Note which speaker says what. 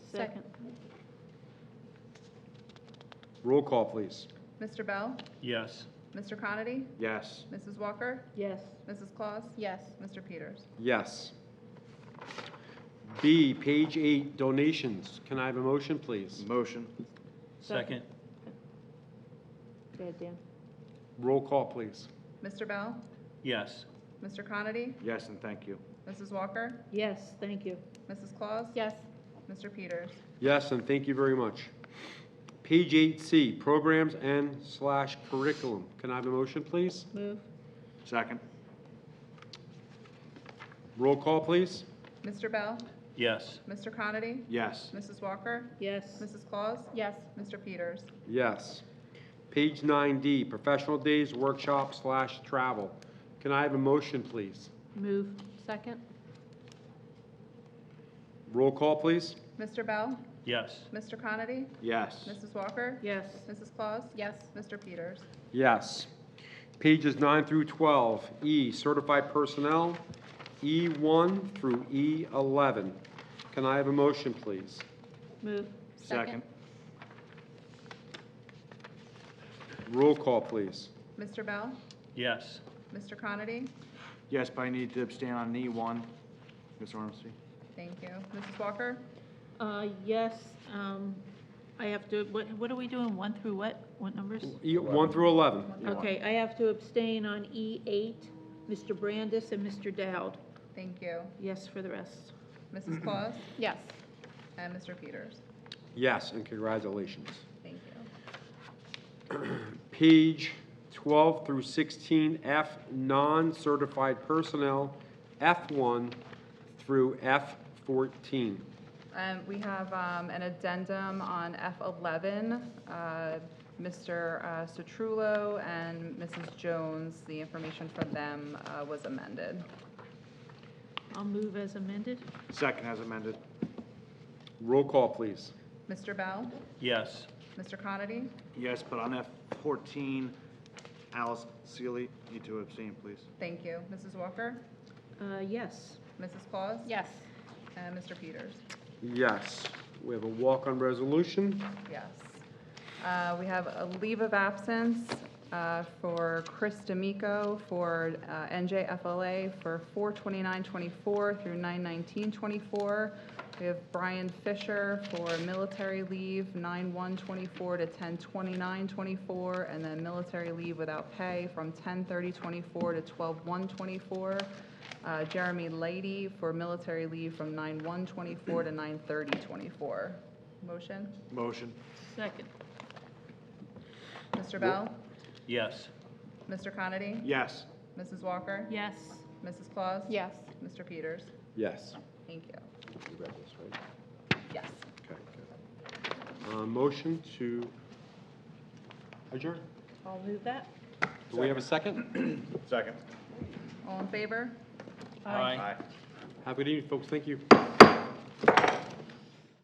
Speaker 1: Second.
Speaker 2: Roll call, please.
Speaker 3: Mr. Bell?
Speaker 4: Yes.
Speaker 3: Mr. Conity?
Speaker 2: Yes.
Speaker 3: Mrs. Walker?
Speaker 1: Yes.
Speaker 3: Mrs. Claus?
Speaker 1: Yes.
Speaker 3: Mr. Peters?
Speaker 2: Yes. B, page eight, donations. Can I have a motion, please?
Speaker 5: Motion,
Speaker 4: Second.
Speaker 1: Go ahead, Dan.
Speaker 2: Roll call, please.
Speaker 3: Mr. Bell?
Speaker 4: Yes.
Speaker 3: Mr. Conity?
Speaker 5: yes, and thank you.
Speaker 3: Mrs. Walker?
Speaker 1: Yes, thank you.
Speaker 3: Mrs. Claus?
Speaker 1: Yes.
Speaker 3: Mr. Peters?
Speaker 2: Yes, and thank you very much. Page eight C, programs and slash curriculum. Can I have a motion, please?
Speaker 1: Move.
Speaker 5: Second,
Speaker 2: Roll call, please.
Speaker 3: Mr. Bell?
Speaker 4: Yes.
Speaker 3: Mr. Conity?
Speaker 5: yes,
Speaker 3: Mrs. Walker?
Speaker 1: Yes.
Speaker 3: Mrs. Claus?
Speaker 1: Yes.
Speaker 3: Mr. Peters?
Speaker 2: Yes. Page nine D, professional days, workshop slash travel. Can I have a motion, please?
Speaker 1: Move. Second.
Speaker 2: Roll call, please.
Speaker 3: Mr. Bell?
Speaker 4: Yes.
Speaker 3: Mr. Conity?
Speaker 5: yes,
Speaker 3: Mrs. Walker?
Speaker 1: Yes.
Speaker 3: Mrs. Claus? Yes. Mr. Peters?
Speaker 2: Yes. Pages 9 through 12, E, certified personnel, E1 through E11. Can I have a motion, please?
Speaker 1: Move.
Speaker 5: second,
Speaker 2: Roll call, please.
Speaker 3: Mr. Bell?
Speaker 4: Yes.
Speaker 3: Mr. Conity?
Speaker 5: yes, but I need to abstain on E one, Ms. Ormski.
Speaker 3: Thank you. Mrs. Walker?
Speaker 6: Uh, yes, um, I have to, what, what are we doing, one through what, what numbers?
Speaker 2: E1 E through 11.
Speaker 6: Okay, I have to abstain on E eight, Mr. Brandis and Mr. Dowd,
Speaker 3: Thank you.
Speaker 6: yes for the rest.
Speaker 3: Mrs. Claus?
Speaker 1: Yes.
Speaker 3: And Mr. Peters?
Speaker 2: Yes, and congratulations.
Speaker 3: Thank you.
Speaker 2: Page 12 through 16, F, non-certified personnel, F1 through F14.
Speaker 3: Um, We have um, an addendum on F11. uh, Mr. uh, Sotrulo and Mrs. Jones, the information from them uh, was amended.
Speaker 6: I'll move as amended,
Speaker 5: Second as amended,
Speaker 2: Roll call, please.
Speaker 3: Mr. Bell?
Speaker 4: Yes.
Speaker 3: Mr. Conity?
Speaker 5: yes, but on F fourteen, Alice Sealy, need to abstain, please.
Speaker 3: Thank you. Mrs. Walker?
Speaker 6: uh, yes.
Speaker 3: Mrs. Claus?
Speaker 1: Yes.
Speaker 3: And Mr. Peters?
Speaker 2: Yes. We have a walk-on resolution.
Speaker 3: Yes. Uh, We have a leave of absence uh, for Chris D'Amico for uh, NJFLA for 4/29/24 through 9/19/24. We have Brian Fisher for military leave, 9/1/24 to 10/29/24, and then military leave without pay from 10/30/24 to 12/1/24. Uh, Jeremy Lady for military leave from 9/1/24 to 9/30/24. Motion?
Speaker 5: Motion,
Speaker 6: Second,
Speaker 3: Mr. Bell?
Speaker 4: Yes.
Speaker 3: Mr. Conity?
Speaker 5: yes,
Speaker 3: Mrs. Walker?
Speaker 6: yes,
Speaker 3: Mrs. Claus?
Speaker 1: Yes.
Speaker 3: Mr. Peters?
Speaker 2: Yes.
Speaker 3: Thank you.
Speaker 2: You read this, right?
Speaker 3: Yes.
Speaker 2: Okay, good. Uh, Motion to adjourn.
Speaker 6: I'll move that.
Speaker 2: Do we have a second?
Speaker 5: second.
Speaker 3: All in favor?
Speaker 4: Aye.
Speaker 2: Have a good evening, folks. Thank you.